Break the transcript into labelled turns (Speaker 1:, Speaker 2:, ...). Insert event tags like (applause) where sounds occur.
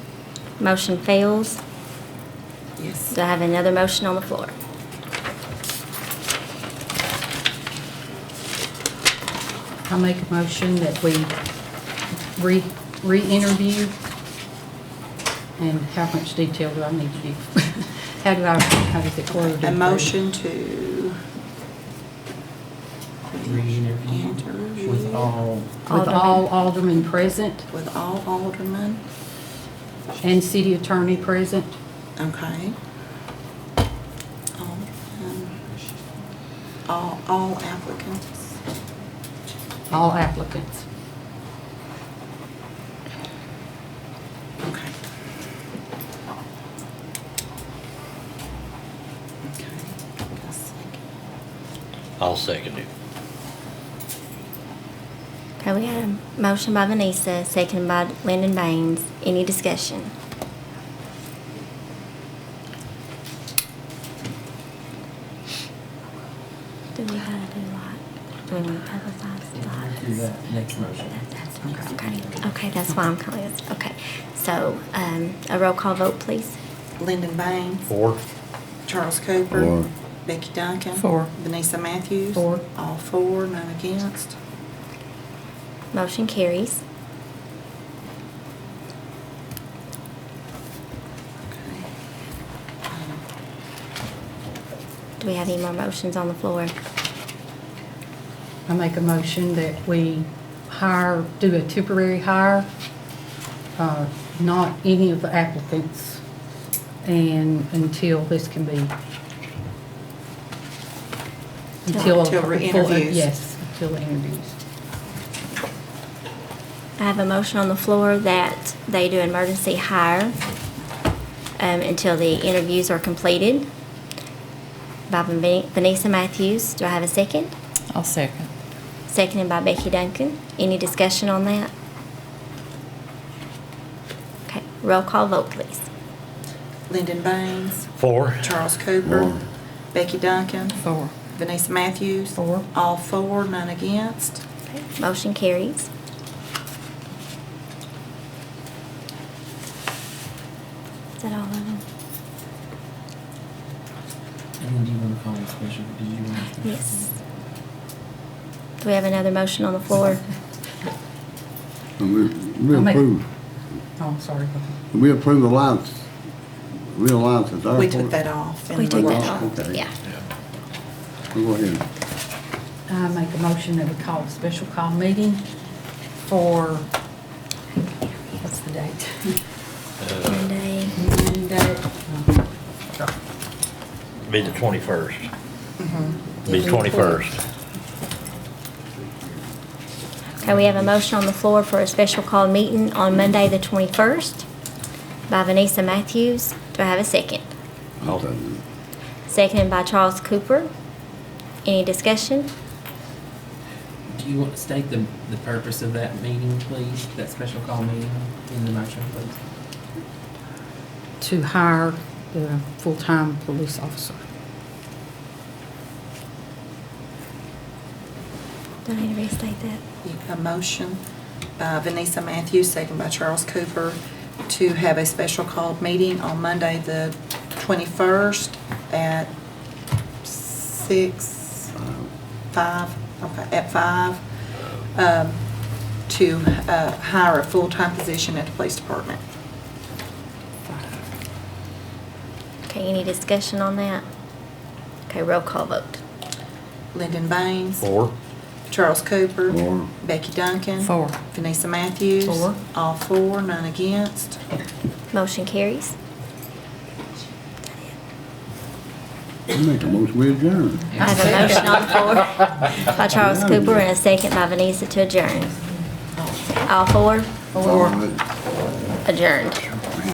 Speaker 1: Motion fails.
Speaker 2: Yes.
Speaker 1: Do I have another motion on the floor?
Speaker 2: I make a motion that we re, re-interview. And how much detail do I need to do? (laughs) How do I, how does it word?
Speaker 3: A motion to.
Speaker 4: re-interview
Speaker 1: Mm-hmm.
Speaker 4: with all,
Speaker 2: With all aldermen present
Speaker 3: With all aldermen,
Speaker 2: and city attorney present.
Speaker 3: okay. Aldermen. All, all applicants.
Speaker 2: All applicants.
Speaker 3: Okay. Okay. A second.
Speaker 5: I'll second it.
Speaker 1: Okay, we had a motion by Vanessa, seconded by Lyndon Baines. Any discussion? Do we gotta do like, do we want to publicize like?
Speaker 4: do that next motion.
Speaker 1: That's Okay, okay, that's why I'm calling this. Okay, so, um, a roll call vote, please.
Speaker 3: Lyndon Baines.
Speaker 5: Four?
Speaker 3: Charles Cooper.
Speaker 6: Four.
Speaker 3: Becky Duncan.
Speaker 2: Four.
Speaker 3: Vanessa Matthews.
Speaker 2: Four.
Speaker 3: All four, none against.
Speaker 1: Motion carries.
Speaker 3: Okay. Um,
Speaker 1: Do we have any more motions on the floor?
Speaker 2: I make a motion that we hire, do a temporary hire, uh, not any of the applicants, and until this can be. Until.
Speaker 3: Till re-interviews.
Speaker 2: Yes, until the interviews.
Speaker 1: I have a motion on the floor that they do emergency hire um, until the interviews are completed. By Van- Vanessa Matthews, do I have a second?
Speaker 7: I'll second.
Speaker 1: Seconded by Becky Duncan. Any discussion on that? Okay, roll call vote, please.
Speaker 3: Lyndon Baines.
Speaker 5: Four?
Speaker 3: Charles Cooper.
Speaker 6: Four.
Speaker 3: Becky Duncan.
Speaker 7: Four.
Speaker 3: Vanessa Matthews.
Speaker 2: Four.
Speaker 3: All four, none against.
Speaker 1: Motion carries. Is that all of them?
Speaker 4: And then do you want to call a special, do you want to?
Speaker 1: Yes. Do we have another motion on the floor?
Speaker 7: (laughs)
Speaker 6: We we
Speaker 2: I'll make-
Speaker 6: approve,
Speaker 2: Oh, I'm sorry. go ahead.
Speaker 6: we approve alliance, real alliance at the
Speaker 3: We took
Speaker 6: airport.
Speaker 3: that off. in
Speaker 1: We
Speaker 3: the
Speaker 1: took that
Speaker 3: workshop.
Speaker 1: off,
Speaker 6: Okay.
Speaker 1: yeah.
Speaker 6: We'll Go ahead.
Speaker 2: I make a motion that we call a special call meeting for, what's the date?
Speaker 5: Uh,
Speaker 1: Monday,
Speaker 2: Monday. Uh-huh.
Speaker 5: Be the twenty-first. Be the twenty-first.
Speaker 1: Okay, we have a motion on the floor for a special call meeting on Monday, the 21st, by Vanessa Matthews. Do I have a second?
Speaker 6: I'll second
Speaker 1: Seconded by Charles Cooper. Any discussion?
Speaker 4: Do you want to state the, the purpose of that meeting, please, that special call meeting in the motion, please?
Speaker 2: To hire the full-time police officer.
Speaker 1: Do I need to restate that?
Speaker 3: A motion by Vanessa Matthews, second by Charles Cooper, to have a special called meeting on Monday, the 21st at 6, 5, okay, at 5, um, to uh, hire a full-time position at the police department.
Speaker 1: Okay, any discussion on that? Okay, roll call vote.
Speaker 3: Lyndon Baines.
Speaker 5: Four?
Speaker 3: Charles Cooper.
Speaker 6: Four.
Speaker 3: Becky Duncan.
Speaker 7: Four.
Speaker 3: Vanessa Matthews.
Speaker 2: Four.
Speaker 3: All four, none against.
Speaker 1: Motion carries.
Speaker 6: it. We make a motion, we adjourn.
Speaker 1: I have a motion on the floor by Charles Cooper and a second by Vanessa to adjourn. All four
Speaker 6: All right.
Speaker 1: adjourned.